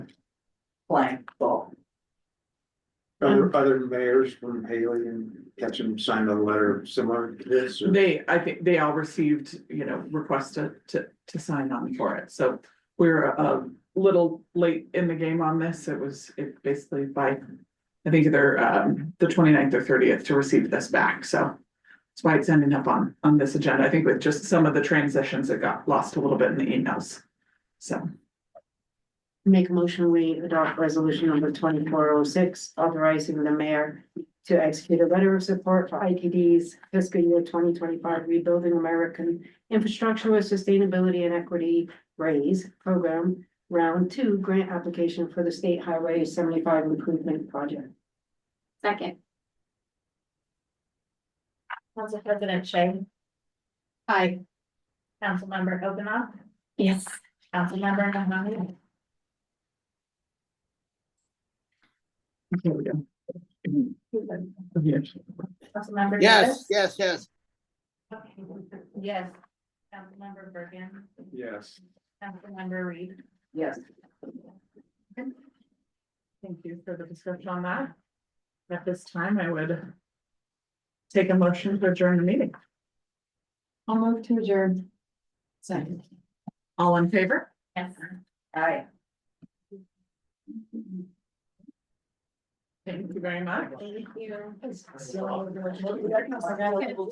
playing ball. Other, other mayors from Haley and Ketchum signed a letter similar to this, or They, I think they all received, you know, requests to, to, to sign on for it, so we're a little late in the game on this, it was, it basically by. I think they're, um, the 29th or thirtieth to receive this back, so. That's why it's ending up on, on this agenda, I think with just some of the transitions that got lost a little bit in the emails. So, Make a motion, we adopt resolution number twenty-four oh six, authorizing the mayor to execute a letter of support for ITD's fiscal year twenty twenty-five Rebuilding American Infrastructure with Sustainability and Equity Raise Program, round two grant application for the State Highway seventy-five improvement project. Second. Council President Shay, Aye. Councilmember Kavanaugh, Yes. Councilmember Mahoney, here we go. Councilmember. Davis? Yes, yes, yes. Yes. Councilmember Bergen, yes. Councilmember Reed. Yes. Thank you for the description on that. At this time, I would. Take a motion to adjourn the meeting. I'll move to adjourn. Second. All in favor? Yes. Aye. Thank you very much. Thank you.